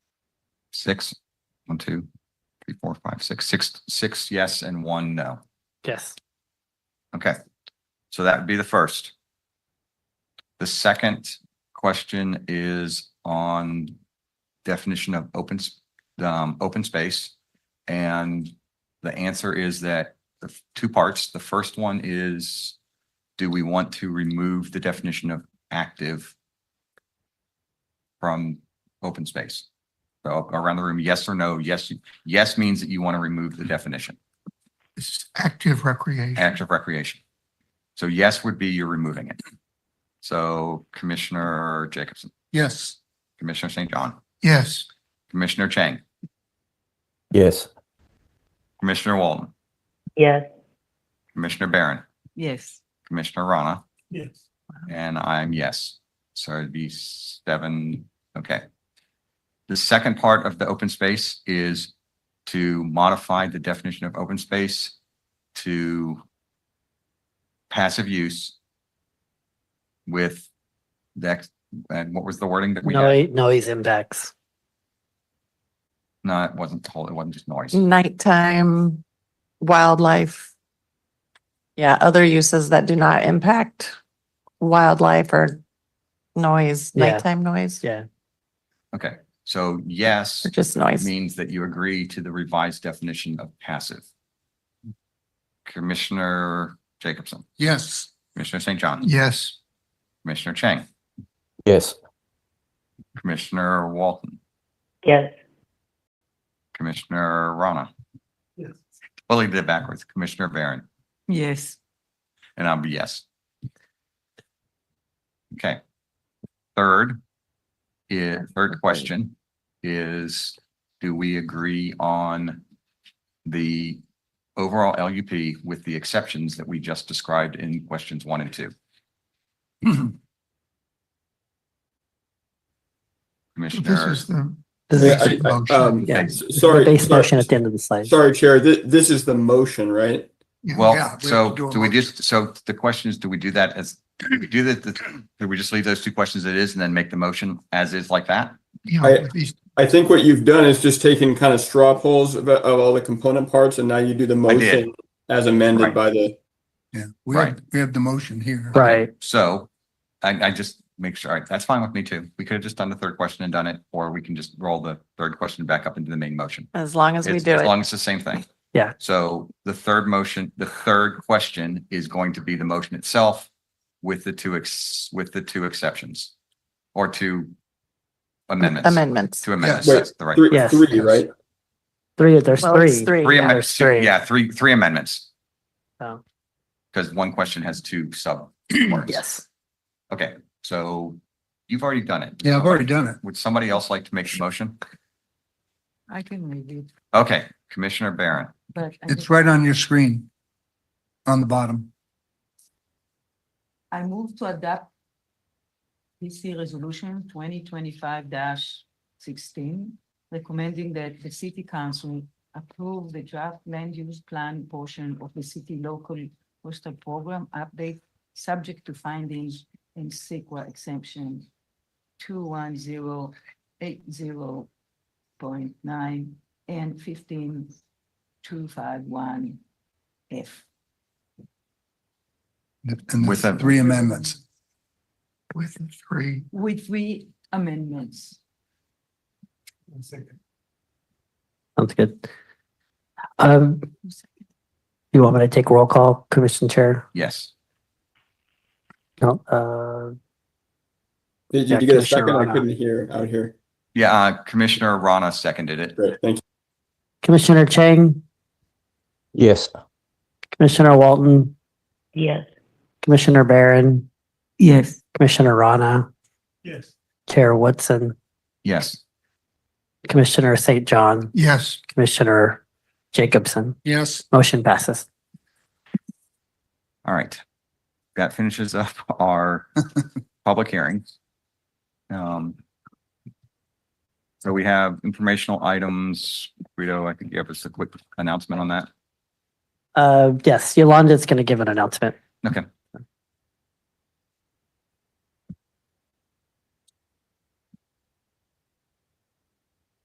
six, one, two, three, four, five, six, six, six yes and one no. Yes. Okay, so that would be the first. The second question is on definition of open, s- um, open space. And the answer is that the f- two parts, the first one is, do we want to remove the definition of active from open space? So around the room, yes or no? Yes, yes means that you want to remove the definition. It's active recreation. active recreation. So yes would be you're removing it. So Commissioner Jacobson, Yes, Commissioner St. John, yes, Commissioner Chang, Yes. Commissioner Walton, yes, Commissioner Barron, yes, Commissioner Rana, Yes. and I'm yes. So it'd be seven, okay. The second part of the open space is to modify the definition of open space to passive use with that, and what was the wording that we had? No, noise impacts. No, it wasn't total, it wasn't just noise. Mm. nighttime wildlife. Yeah, other uses that do not impact wildlife or noise, Yeah. nighttime noise, Yeah. Okay, so yes or just noise. means that you agree to the revised definition of passive. Commissioner Jacobson, yes, Commissioner St. John, yes, Commissioner Chang, Yes. Commissioner Walton, yes, Commissioner Rana. Yes. Well, he did it backwards, Commissioner Barron, Yes. and I'll be yes. Okay. Third, is, third question is, do we agree on the overall LUP with the exceptions that we just described in questions one and two? this Commissioner, is the, This Yeah, is I- I- the um, yeah, Yes. the Sorry, Base sorry- motion at the end of the slide. Sorry, Chair, thi- this is the motion, right? yeah, well, yeah, have so to a do we motion. just, so the question is, do we do that as, do we do that, do we just leave those two questions as is and then make the motion as is like that? Yeah, I- at least- I think what you've done is just taken kind of straw polls of, of all the component parts, and now you do the did. motion as amended Right. by the, yeah, we have, Right. we have the motion here. Right. So I, I just make sure, all right, that's fine with me too. We could have just done the third question and done it, or we can just roll the third question back up into the main motion. As long as we It's- do As it. long as it's the same thing. Yeah. So the third motion, the third question is going to be the motion itself with the two ex, with the two exceptions or two amendments. Amendments. Two amendments, Yes. that's the right. three, Yes. three, right? Three, there's Well, it's three. three. Three Yeah, amendments, there's three. yeah, three, three amendments, So, because one question has two sub. Yes. Okay, so you've already done it. Yeah, I've already done it. Would somebody else like to make the motion? I can review, Okay, Commissioner Barron, but I It's just- right on your screen. On the bottom. I move to adapt PC Resolution twenty twenty-five sixteen, recommending that the city council approve the draft land use plan portion of the city local coastal program update, subject to findings in CEQA exemption two one zero eight zero point nine and fifteen two five one F. And With the a- three amendments. With the three. with three amendments. Sounds good. Um, you want me to take roll call, Commission Chair? yes. No, uh, Did Yeah, you get a Commissioner second? I Rana. couldn't hear out here. Yeah, uh, Commissioner Rana seconded it. Great, thank you. Commissioner Chang, Yes. Commissioner Walton, yes. Commissioner Barron, Yes. Commissioner Rana. Yes. Chair Woodson, Yes, Commissioner St. John, Yes, Commissioner Jacobson. yes, Motion passes. all right. That finishes up our public hearing. Um, so we have informational items. Guido, I think you have us a quick announcement on that. Uh, yes, Yolanda's going to give an announcement. Okay,